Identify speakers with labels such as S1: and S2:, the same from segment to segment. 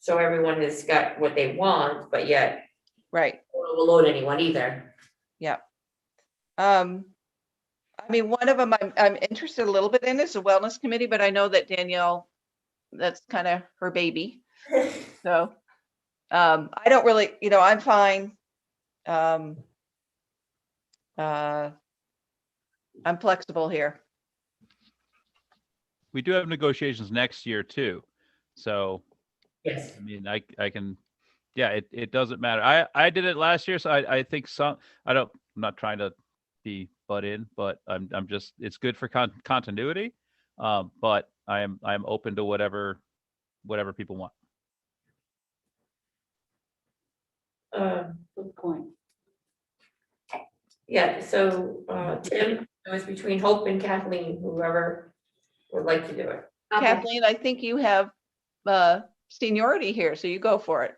S1: So everyone has got what they want, but yet
S2: right.
S1: don't overload anyone either.
S2: Um, I mean, one of them I'm, I'm interested a little bit in is the wellness committee, but I know that Danielle, that's kind of her baby. So, um, I don't really, you know, I'm fine. Um, uh, I'm flexible here.
S3: We do have negotiations next year too. So,
S1: Yes.
S3: I mean, I, I can, yeah, it, it doesn't matter. I, I did it last year, so I, I think some, I don't, I'm not trying to be butt in, but I'm, I'm just, it's good for con- continuity. Um, but I am, I'm open to whatever, whatever people want.
S1: Um,
S4: Good point.
S1: yeah, so, uh, Tim, it was between Hope and Kathleen, whoever would like to do it.
S4: Okay.
S2: Kathleen, I think you have, uh, seniority here, so you go for it.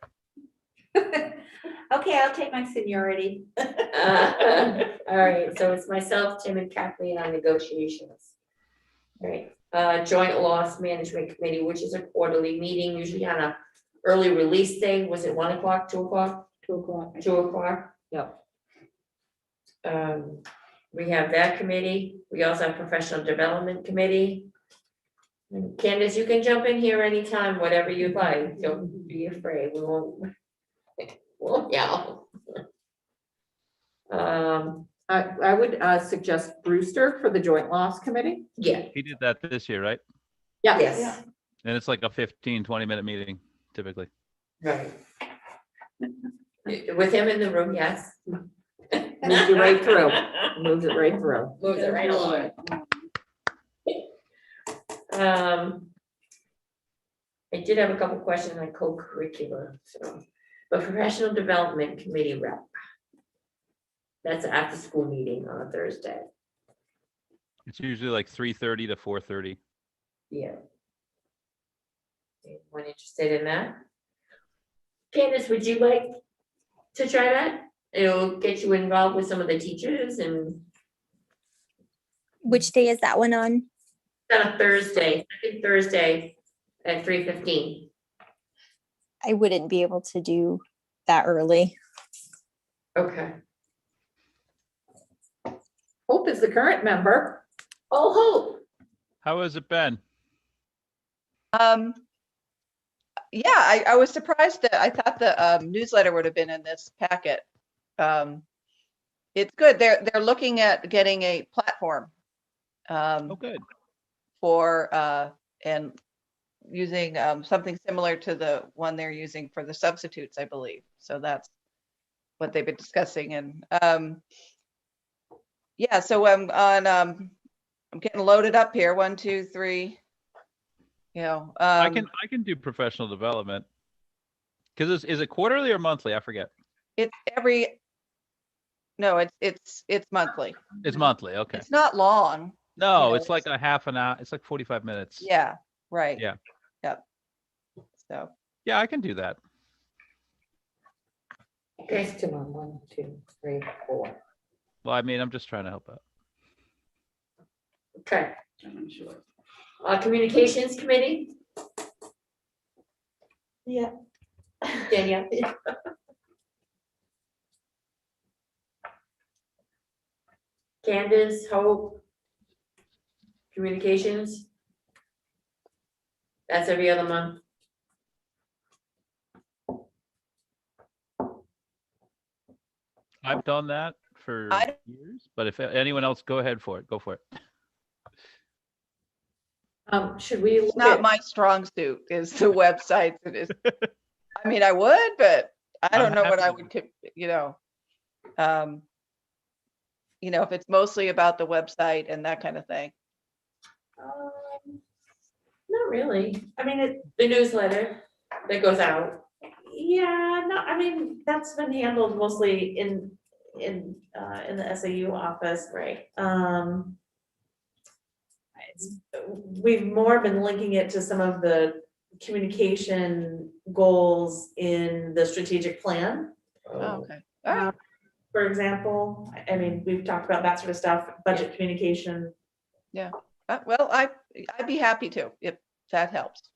S4: Okay, I'll take my seniority.
S1: Uh, All right, so it's myself, Tim and Kathleen on negotiations. All right, uh, joint loss management committee, which is a quarterly meeting, usually on a early release day, was it one o'clock, two o'clock,
S4: Two o'clock.
S1: two o'clock?
S4: Yep.
S1: Um, we have that committee, we also have professional development committee. And Candace, you can jump in here anytime, whatever you'd like, don't be afraid, we won't. We'll yell. Um,
S5: I, I would uh, suggest Brewster for the Joint Loss Committee.
S1: yeah,
S3: He did that this year, right?
S1: yes.
S3: And it's like a 15, 20 minute meeting typically.
S1: Right. With him in the room, yes.
S5: Moves you right through, moves it right through.
S1: Moves it right along. Um. I did have a couple questions on co-curricular, so, but professional development committee rep. That's after school meeting on a Thursday,
S3: It's usually like 3:30 to 4:30.
S1: yeah. Anyone interested in that? Candace, would you like to try that? It'll get you involved with some of the teachers and
S6: Which day is that one on?
S1: It's on a Thursday, second Thursday at three fifteen.
S6: I wouldn't be able to do that early.
S1: Okay.
S5: Hope is the current member.
S1: Oh,
S3: How has it been?
S2: Um, yeah, I, I was surprised that I thought the um, newsletter would have been in this packet. Um, it's good. They're, they're looking at getting a platform
S3: Oh,
S2: um,
S3: good.
S2: for, uh, and using um, something similar to the one they're using for the substitutes, I believe. So that's what they've been discussing and, um, yeah, so I'm on, um, I'm getting loaded up here. One, two, three. You know,
S3: I
S2: um.
S3: can, I can do professional development. Cause is, is it quarterly or monthly? I forget.
S2: It's every, no, it's, it's, it's monthly.
S3: It's monthly. Okay.
S2: It's not long.
S3: No,
S2: know,
S3: it's like a half an hour. It's like 45 minutes.
S2: Yeah, right.
S3: Yeah.
S2: Yep. So,
S3: Yeah, I can do that.
S1: oh, okay,
S5: two on one, two, three, four.
S3: Well, I mean, I'm just trying to help out.
S1: okay. Uh, communications committee?
S4: Yeah.
S1: Danielle? Candace, Hope? Communications? That's every other month.
S3: I've done that for
S2: I-
S3: years, but if anyone else, go ahead for it. Go for it.
S5: Um, should we?
S2: it's
S5: look
S2: not
S5: at-
S2: my strong suit is the websites. It is. I mean, I would, but I
S3: I'm
S2: don't know what
S3: happy
S2: I
S3: to
S2: would, co- you know. Um. You know, if it's mostly about the website and that kind of thing.
S1: Um, Not really.
S4: I mean, it,
S1: The newsletter that goes out.
S4: yeah, no, I mean, that's been handled mostly in, in, uh, in the SAU office.
S1: Right.
S4: Um. it's- We've more been linking it to some of the communication goals in the strategic plan.
S2: Oh, Okay. All right.
S4: Um, For example, I- I mean, we've talked about that sort of stuff, budget communication.
S2: Uh, Well, I, I'd be happy to, if that helps.